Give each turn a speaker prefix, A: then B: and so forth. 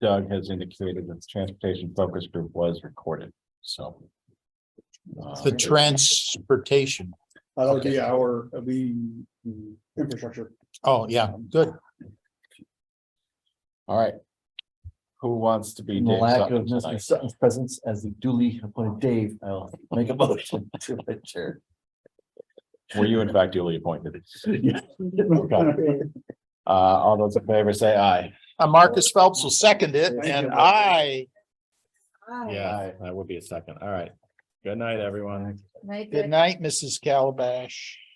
A: Doug has indicated that the transportation focus group was recorded, so. uh,
B: The transportation.
C: Uh, that would be our, uh, the the infrastructure.
B: Oh, yeah, good.
A: All right. Who wants to be?
D: In the
A: Dave
D: lack
A: Sutton
D: of Mr.
A: tonight?
D: Sutton's presence as the duly appointed Dave, I'll make a motion to adjourn.
A: Were you in fact duly appointed?
C: Okay.
A: Uh, all those in favor say aye.
B: Uh, Marcus Phelps will second it
C: Thank you,
B: and
C: Marcus.
B: I.
A: Aye, That would be a second. All right. Good night, everyone.
E: Night,
B: Good
E: Dick.
B: night, Mrs. Calabash.